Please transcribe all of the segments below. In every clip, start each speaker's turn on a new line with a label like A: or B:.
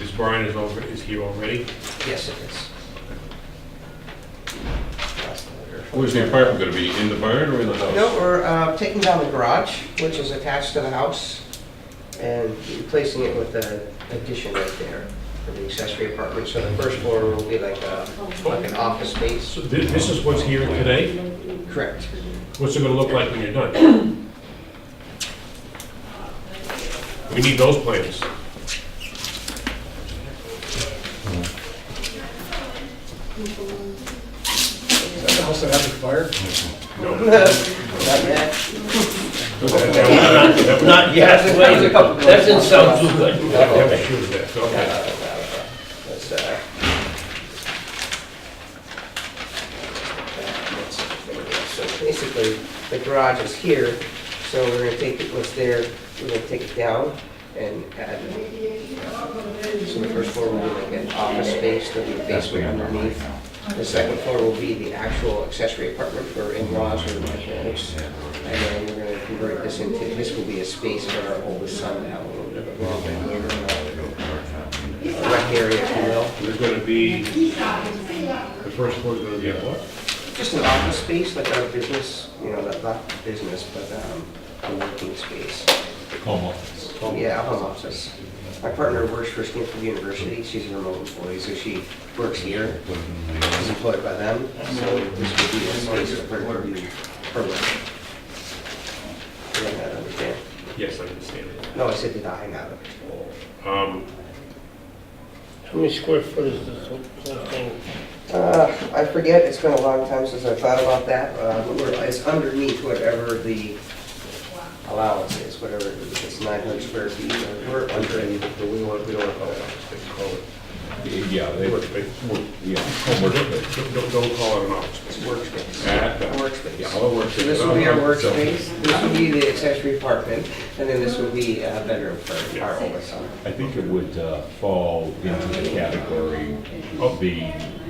A: Is Brian is over, is here already?
B: Yes, it is. Last letter.
C: Where's the apartment gonna be, in the barn or in the house?
B: No, we're uh, taking down the garage, which is attached to the house, and replacing it with an addition right there for the accessory apartment. So the first floor will be like a, like an office space.
A: So thi- this is what's here today?
B: Correct.
A: What's it gonna look like when you're done? We need those plans.
D: Is that the house that had the fire?
A: No.
B: Not yet.
A: That was not-
E: Not yet,
B: That was a couple
E: that doesn't sound too good.
A: that was shoes there, so, okay.
B: That's, uh, that's- So basically, the garage is here, so we're gonna take it, what's there, we're gonna take it down and add. So the first floor will be like an office space, there'll be a basement underneath. The second floor will be the actual accessory apartment for in-laws or like folks. And then we're gonna convert this into, this will be a space for our oldest son to have a little bit of a a rec area, if you will.
A: There's gonna be, the first floor's gonna be a what?
B: Just an office space, like our business, you know, not, not business, but, um, a working space.
C: Home office.
B: Yeah, a home office. My partner works for Stanford University, she's a remote employee, so she works here, she's employed by them, so this would be a space for her to be, her work. Did I not understand?
A: Yes, I understand it.
B: No, I said, did I not?
A: Um,
E: How many square foot is this whole thing?
B: Uh, I forget, it's been a long time since I've thought about that, uh, but we're- it's underneath whatever the allowance is, whatever, it is. it's nine hundred square feet, or we're under it.
A: but we want, we don't want to call it office, they call it
C: Yeah, they were,
A: work space.
C: yeah, homework. space.
A: Don't, don't- don't call it an office
B: It's
A: space.
B: workspace.
A: Add that.
B: Workspace.
A: Yeah, all the work.
B: So this will be our workspace, this will be the accessory apartment, and then this will be a bedroom for our oldest son.
C: I think it would uh, fall into the category of the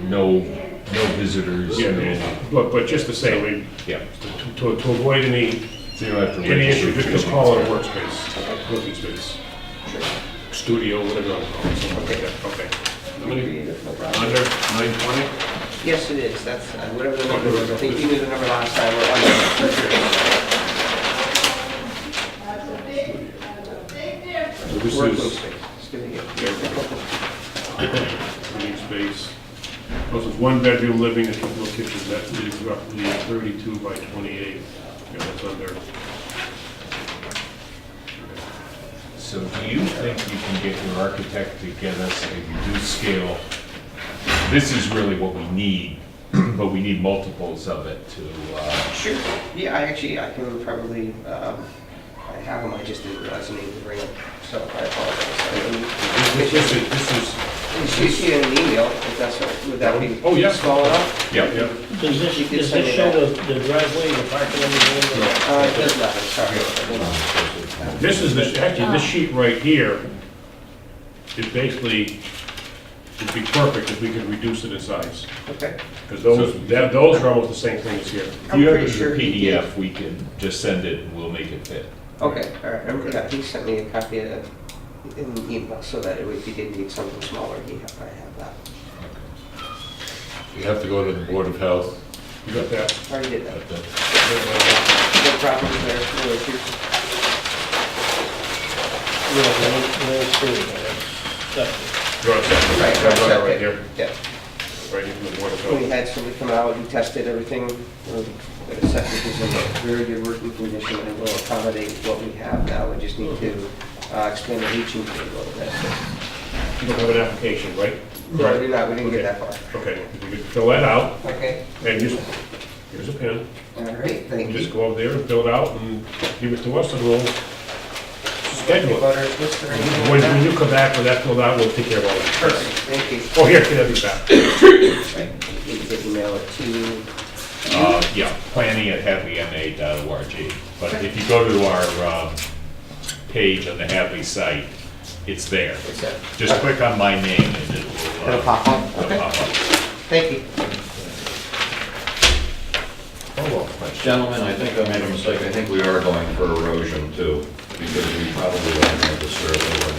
C: no, no visitors,
A: Yeah,
C: no,
A: yeah. but, but just to say, we,
C: yeah.
A: to- to, to avoid any
C: So you don't have to
A: Any issue,
C: register.
A: just just call it a workspace, working space, studio, whatever you want to call it, something like that, okay. How many- Under nine twenty?
B: Yes, it is, that's, uh, whatever the number was, I think you knew the number last time, we're under.
A: So this
B: Working
A: is
B: space, studio.
A: living space. This is one bedroom living, and a couple of kitchens, that is roughly thirty-two by twenty-eight, yeah, that's under.
C: So do you think you can get your architect to get us a reduced scale? This is really what we need, but we need multiples of it to, uh,
B: Sure, yeah, I actually, I can probably, um, I have them, I just didn't realize I needed to bring them, so I apologize.
A: This this is, this is,
B: Can she see in an email, if that's, what- would that be?
A: Oh, yeah.
B: Small enough?
C: yeah,
A: yeah,
E: Does
B: You
E: this,
B: could
E: does
B: send
E: this
B: it
E: show
B: out.
E: the the driveway, the parking, everything?
B: Uh, it does not, I'm sorry.
C: um,
A: this is, the- actually, this sheet right here is basically, would be perfect if we could reduce it in size.
B: Okay,
A: Because those, that- those are almost the same thing as here.
B: I'm
C: You have
B: pretty
C: it as a
B: sure he did.
C: PDF, we can just send it, and we'll make it fit.
B: okay, all right, I'm- yeah, he sent me a copy of, the- in an email, so that if he did need something smaller, he, I have that.
F: You have to go to the Board of Health.
A: You got that?
B: Already did that,
F: at the-
B: no problems there, no issues.
E: Yeah, no, no, it's true, but it's septic.
A: Draw a section.
B: Right,
A: Draw a line Right
B: right,
A: Oh,
B: okay,
A: here,
B: yeah.
A: right here from the board of
B: We
A: health.
B: Oh, had somebody come out and tested everything, um, but the septic is in very good working condition and will accommodate what we have now. We just need to uh, explain the leaching field a little bit.
A: You don't have an application, right?
B: No, we did not, we didn't get that far.
A: Okay, you could fill that out,
B: Okay,
A: and just, here's a pen,
B: all right, thank
A: You
B: you.
A: just go over there and fill it out, and give it to us, and we'll schedule it.
B: Butter, what's the name
A: When
B: of
A: when
B: that?
A: you come back with that filled out, we'll take care of all that.
B: Perfect, thank you.
A: Oh, here, can I be back?
B: Right, You can email it to,
C: Uh, yeah, planning at planning@hadleyma.org. But if you go to our, um, page on the Hadley site, it's there.
B: it's that,
C: Just click on my name and it will. uh,
B: it'll pop up.
C: it'll
B: Okay,
C: pop up.
B: thank you.
F: Gentlemen, I think I made a mistake. I think we are going for erosion too, because we probably don't have the survey.